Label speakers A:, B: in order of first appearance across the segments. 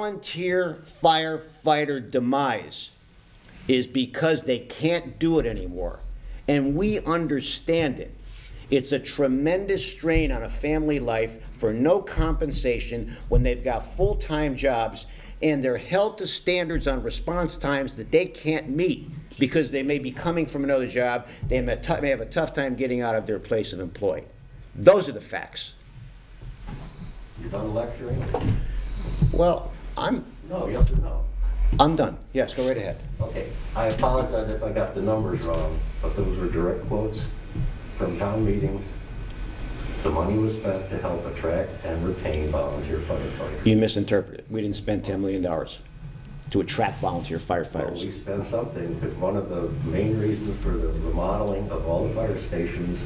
A: volunteer firefighter demise is because they can't do it anymore. And we understand it. It's a tremendous strain on a family life for no compensation when they've got full-time jobs and they're held to standards on response times that they can't meet because they may be coming from another job, they may tou- may have a tough time getting out of their place of employ. Those are the facts.
B: You're done lecturing?
A: Well, I'm,
B: No, yes or no?
A: I'm done. Yes, go right ahead.
B: Okay, I apologize if I got the numbers wrong, but those were direct quotes from town meetings. The money was spent to help attract and retain volunteer firefighters.
A: You misinterpreted. We didn't spend $10 million to attract volunteer
B: Well, We
A: firefighters.
B: spent something, because one of the main reasons for the remodeling of all the fire stations,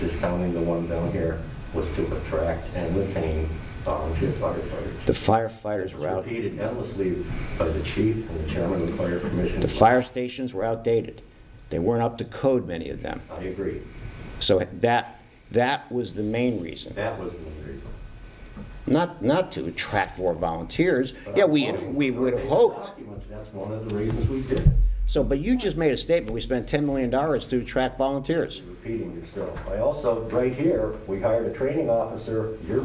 B: discounting the one down here, was to attract and retain volunteer firefighters.
A: The firefighters
B: It
A: were
B: was
A: out,
B: repeated endlessly by the chief and the chairman of the fire commission.
A: the fire stations were outdated. They weren't up to code, many of them.
B: I agree.
A: So that, that was the main reason.
B: That was the main reason.
A: Not, not to attract more volunteers.
B: But
A: Yeah,
B: I'm
A: we, had-
B: quoting
A: we would have
B: verbatim
A: hoped.
B: documents. That's one of the reasons we did it.
A: So, but you just made a statement, we spent $10 million to attract volunteers.
B: You're Repeating yourself. I also, right here, we hired a training officer. You're,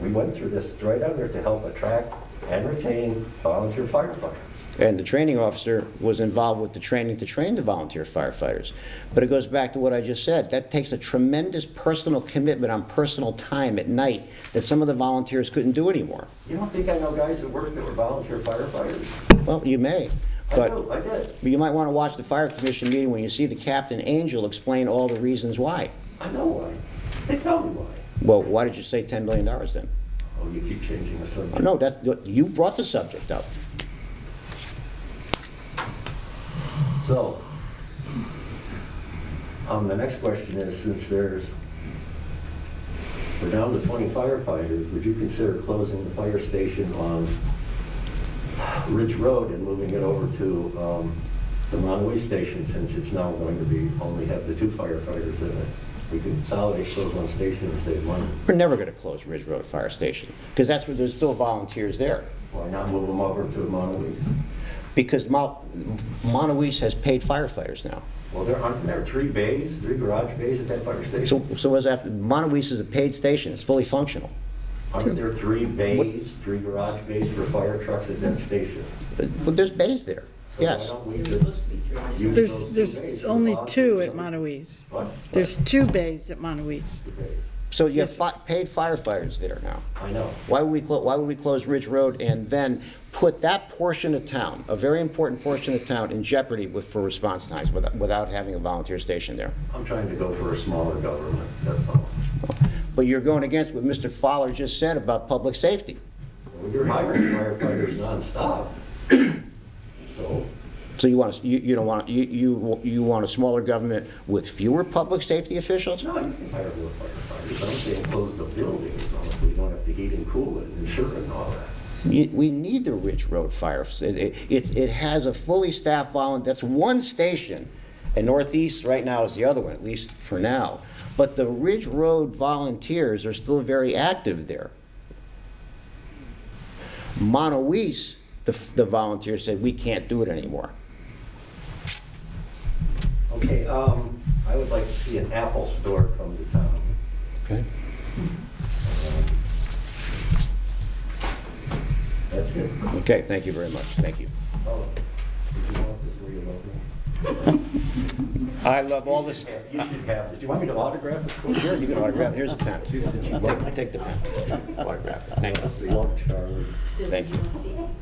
B: we went through this right under to help attract and retain volunteer firefighters.
A: And the training officer was involved with the training to train the volunteer firefighters. But it goes back to what I just said, that takes a tremendous personal commitment on personal time at night that some of the volunteers couldn't do anymore.
B: You don't think I know guys that worked that were volunteer firefighters?
A: Well, you may,
B: I
A: but
B: do, I did.
A: you might want to watch the fire commission meeting when you see the Captain Angel explain all the reasons why.
B: I know why. They tell me why.
A: Well, why did you say $10 million then?
B: Oh, you keep changing the subject.
A: No, that's, you brought the subject up.
B: So, um, the next question is, since there's, we're down to 20 firefighters, would you consider closing the fire station on Ridge Road and moving it over to, um, the Monway Station, since it's now going to be, only have the two firefighters in it? We could consolidate those one station and save money.
A: We're never going to close Ridge Road Fire Station, because that's where there's still volunteers there.
B: Why not move them over to Monway?
A: Because Mo- Montauk has paid firefighters now.
B: Well, there aren't, there are three bays, three garage bays at that fire
A: So,
B: station.
A: so as after, Montauk is a paid station, it's fully functional.
B: Aren't there three bays, three garage bays for fire trucks at that station?
A: But but there's bays there,
B: So why
A: yes.
B: don't we
C: There's
B: just
C: supposed to be three on
B: use
C: this.
B: those
D: There's,
B: two bays
D: there's
B: for
D: only
B: volunteer
D: two at
B: service?
D: Montoise.
B: What?
D: There's two bays at Montoise.
B: Two bays.
A: So you have
D: Yes,
A: fi- paid firefighters there now.
B: I know.
A: Why would we, clo- why would we close Ridge Road and then put that portion of town, a very important portion of town, in jeopardy with, for response times without, without having a volunteer station there?
B: I'm trying to go for a smaller government, that's all.
A: But you're going against what Mr. Fowler just said about public safety.
B: You're hiring firefighters nonstop. So,
A: So you want, you, you don't want, you, you, you want a smaller government with fewer public safety officials?
B: no, you can hire more firefighters. I'm saying close the building, as long as we don't have to heat and cool it and insure it and all that.
A: We we need the Ridge Road Fire, it, it- it's- it has a fully staffed volun, that's one station, and Northeast right now is the other one, at least for now. But the Ridge Road volunteers are still very active there. Monowese, the, the volunteers said, we can't do it anymore.
B: Okay, um, I would like to see an Apple store come to town.
A: Okay.
B: That's it.
A: Okay, thank you very much, thank you.
B: Oh, did you want this reloaded?
A: I love all this,
B: Yeah, You should have this. Do you want me to autograph it? for you?
A: here, you can autograph, here's the pen. Take- Take the pen, autograph it, thank you,
B: That's the one, Charlie.
A: thank you.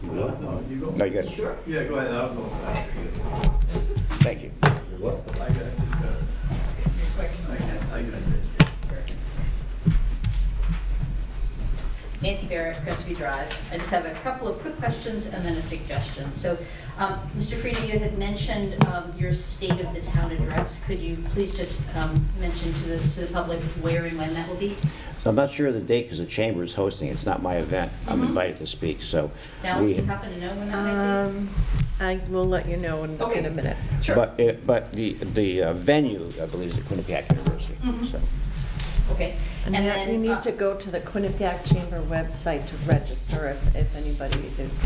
B: You want one?
A: No, you got it. Sure.
E: Yeah, go ahead, I'll go.
A: Thank you.
B: You're welcome.
E: I got it. I got- I got it.
C: Nancy Barrett, Crestview Drive. I just have a couple of quick questions and then a suggestion. So, um, Mr. Frieda, you had mentioned um, your state of the town address. Could you please just um, mention to the, to the public where and when that will be?
A: I'm not sure of the date because the chamber is hosting. It's not my event. I'm invited to speak, so.
C: Now,
A: we-
C: you happen to know when that
F: Um, I will let you know in, in
C: Okay.
F: a minute.
C: might be? Sure.
A: But, it- but the, the uh, venue, I believe, is at Quinnipiac University, so.
C: Okay.
F: And
C: And
F: yet you
C: then, uh,
F: need to go to the Quinnipiac Chamber website to register if, if anybody is